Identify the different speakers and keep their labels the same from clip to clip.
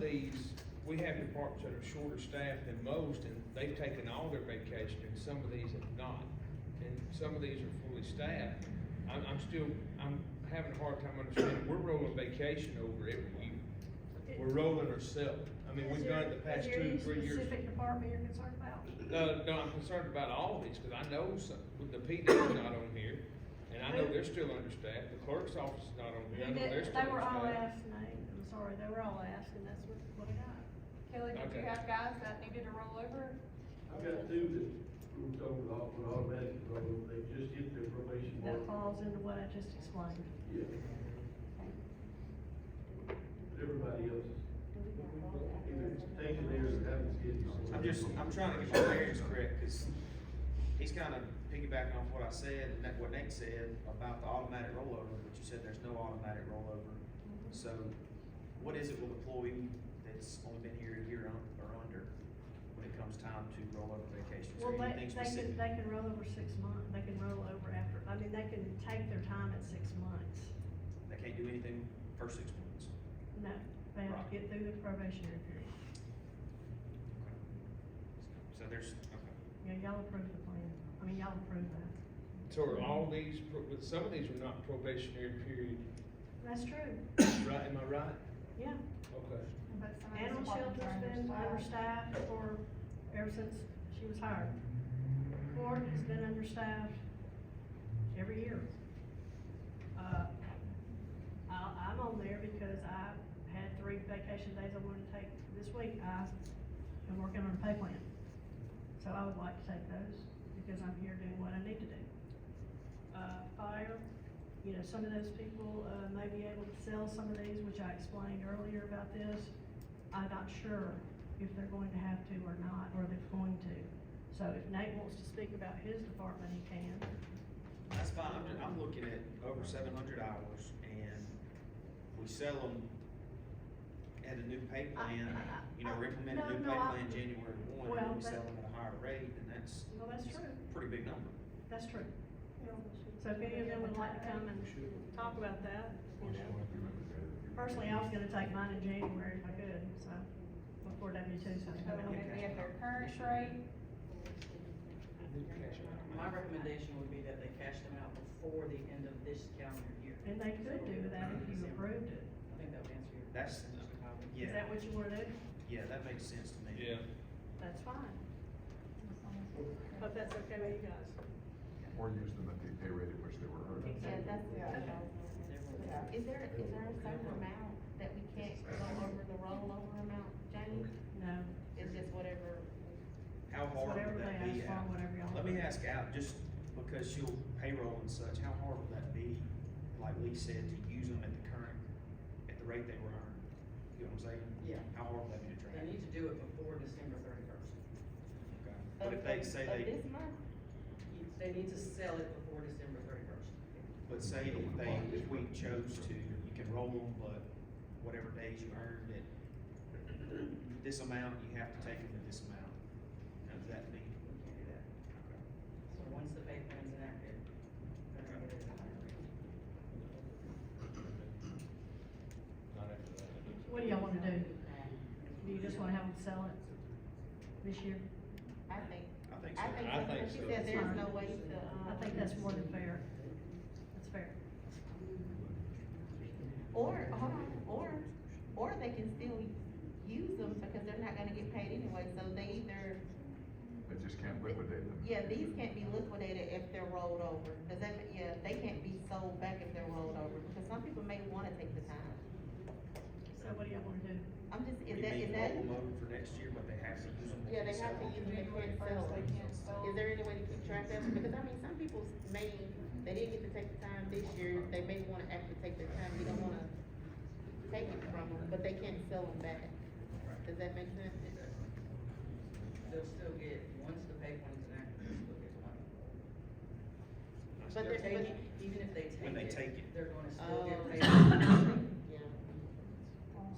Speaker 1: these, we have departments that are shorter staffed than most, and they've taken all their vacation, and some of these have not. And some of these are fully staffed. I'm, I'm still, I'm having a hard time understanding, we're rolling vacation over every year. We're rolling ourselves. I mean,
Speaker 2: Is
Speaker 1: we've done
Speaker 2: there-
Speaker 1: it the past
Speaker 2: is
Speaker 1: two,
Speaker 2: there any
Speaker 1: three years.
Speaker 2: Specific department you're concerned about?
Speaker 1: No, no, I'm concerned about all these, cause I know some, with the PD's not on here, and I know they're still understaffed, the clerk's office is not on here, I know they're still
Speaker 2: They were all
Speaker 1: understaffed.
Speaker 2: asked, Nate, I'm sorry, they were all asked, and that's what, what I got.
Speaker 3: Kelly, did you
Speaker 1: Okay.
Speaker 3: have guys that needed to roll over?
Speaker 4: I've got two that were told off with automatic parole, they just hit their probation.
Speaker 2: That
Speaker 4: mark.
Speaker 2: falls into what I just explained.
Speaker 4: Yeah. But everybody else, either it's taken there or haven't scheduled.
Speaker 5: I'm just, I'm trying to get my bearings correct, cause he's kinda piggybacking off what I said and that, what Nate said about the automatic rollover, but you said there's no automatic rollover.
Speaker 3: Mm-hmm.
Speaker 5: So, what is it with employee that's only been here a year un- or under when it comes time to roll over vacation? Is
Speaker 2: Well,
Speaker 5: there
Speaker 2: they,
Speaker 5: anything
Speaker 2: they can,
Speaker 5: specific?
Speaker 2: they can roll over six months, they can roll over after, I mean, they can take their time at six months.
Speaker 5: They can't do anything first six months.
Speaker 2: No, they have to get through the probationary period.
Speaker 5: So there's, okay.
Speaker 2: Yeah, y'all approved the plan, I mean, y'all approved that.
Speaker 1: So are all these, pro- but some of these are not probationary period,
Speaker 2: That's true,
Speaker 1: right, am I right?
Speaker 2: yeah.
Speaker 1: Okay.
Speaker 3: But some of these
Speaker 2: Animal
Speaker 3: departments
Speaker 2: shelter's
Speaker 3: are
Speaker 2: been
Speaker 3: understaffed.
Speaker 2: understaffed for, ever since she was hired. Court has been understaffed every year. Uh, I, I'm on there because I had three vacation days I wanted to take this week, I am working on a pay plan. So I would like to take those, because I'm here doing what I need to do. Uh, fire, you know, some of those people, uh, may be able to sell some of these, which I explained earlier about this. I'm not sure if they're going to have to or not, or they're going to. So if Nate wants to speak about his department, he can.
Speaker 5: That's fine, I'm, ju- I'm looking at over seven hundred hours, and we sell them at a new pay plan, you know, we're implementing
Speaker 2: No,
Speaker 5: a new pay
Speaker 2: no, I-
Speaker 5: plan January one, and
Speaker 2: Well,
Speaker 5: then we sell
Speaker 2: but-
Speaker 5: them at a higher rate, and that's
Speaker 2: Well, that's true,
Speaker 5: a pretty big number.
Speaker 2: that's true. So if any of them would like to come and talk about that, you know. Personally, I was gonna take mine in January if I could, so, before W two, so.
Speaker 3: So would it be at their current rate?
Speaker 6: My recommendation would be that they cash them out before the end of this calendar year.
Speaker 2: And they could do that if you approved it.
Speaker 6: I think that would answer your.
Speaker 5: That's-
Speaker 6: Mr. Cobb.
Speaker 2: Is
Speaker 5: Yeah,
Speaker 2: that what you wanna do?
Speaker 5: yeah, that makes sense to me.
Speaker 1: Yeah,
Speaker 2: That's fine, but that's okay with you guys.
Speaker 7: Or use them at the pay rate at which they were earned.
Speaker 8: Yeah, that's the idea.
Speaker 6: Yeah.
Speaker 8: Is there, is there a certain amount that we can't go over the rollover amount, Jamie?
Speaker 2: No,
Speaker 8: It's just whatever.
Speaker 5: How
Speaker 2: It's
Speaker 5: hard
Speaker 2: whatever
Speaker 5: would that
Speaker 2: they
Speaker 5: be?
Speaker 2: ask for,
Speaker 5: Al?
Speaker 2: whatever y'all
Speaker 5: Let me
Speaker 2: want.
Speaker 5: ask out, just because she'll payroll and such, how hard would that be, like Lee said, to use them at the current, at the rate they were earned? You know what I'm saying?
Speaker 6: Yeah.
Speaker 5: How hard would that be to track?
Speaker 6: They need to do it before December thirty-first.
Speaker 5: Okay. But if they
Speaker 8: of-
Speaker 5: say
Speaker 8: Of
Speaker 5: they,
Speaker 8: this month,
Speaker 6: They need to sell it before December thirty-first.
Speaker 5: but say if they, if we chose to, you can roll them, but whatever days you earned it, this amount, you have to take them to this amount. Now, does that mean?
Speaker 6: We can't do that. So once the pay plan's enacted, they're gonna get it at a higher rate.
Speaker 1: not after that.
Speaker 2: what do y'all wanna do? Do you just wanna have them sell it this year?
Speaker 8: I think,
Speaker 5: I think so.
Speaker 8: I think,
Speaker 1: I
Speaker 8: that's
Speaker 1: think
Speaker 8: what she
Speaker 1: so.
Speaker 8: said there's no way to, um.
Speaker 2: I think that's more than fair. That's fair.
Speaker 8: Or, hold on, or, or they can still use them because they're not gonna get paid anyway, so they either,
Speaker 7: They just can't liquidate them.
Speaker 8: yeah, these can't be liquidated if they're rolled over. Does that, ma- yeah, they can't be sold back if they're rolled over, because some people may wanna take the time.
Speaker 2: So what do y'all wanna do?
Speaker 8: I'm just,
Speaker 5: You
Speaker 8: is that,
Speaker 5: mean
Speaker 8: is
Speaker 5: roll
Speaker 8: that?
Speaker 5: them over for next year, but they have to use them.
Speaker 8: Yeah, they have to
Speaker 5: So-
Speaker 8: use them, they can't sell them. Is there any way to keep track of it? Because I mean, some people may, they didn't get to take the time this year, they may wanna actually take their time, we don't wanna take it from them, but they can't sell them back. Does that make sense?
Speaker 6: They'll still get, once the pay plan's enacted, they'll still get the money.
Speaker 1: I
Speaker 8: But
Speaker 1: still-
Speaker 8: they're-
Speaker 6: They're taking, even if they
Speaker 5: When they
Speaker 6: take
Speaker 5: take it.
Speaker 6: it, they're gonna still
Speaker 8: Oh.
Speaker 6: get paid.
Speaker 8: Yeah.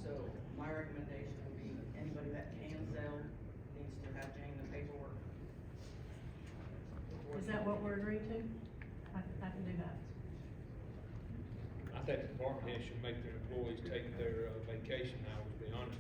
Speaker 6: So my recommendation would be, anybody that can sell needs to have Jane the paperwork. before
Speaker 2: Is
Speaker 6: the-
Speaker 2: that what we're agreeing to? I, I can do that.
Speaker 1: I think the department heads should make their employees take their uh, vacation hours, to be honest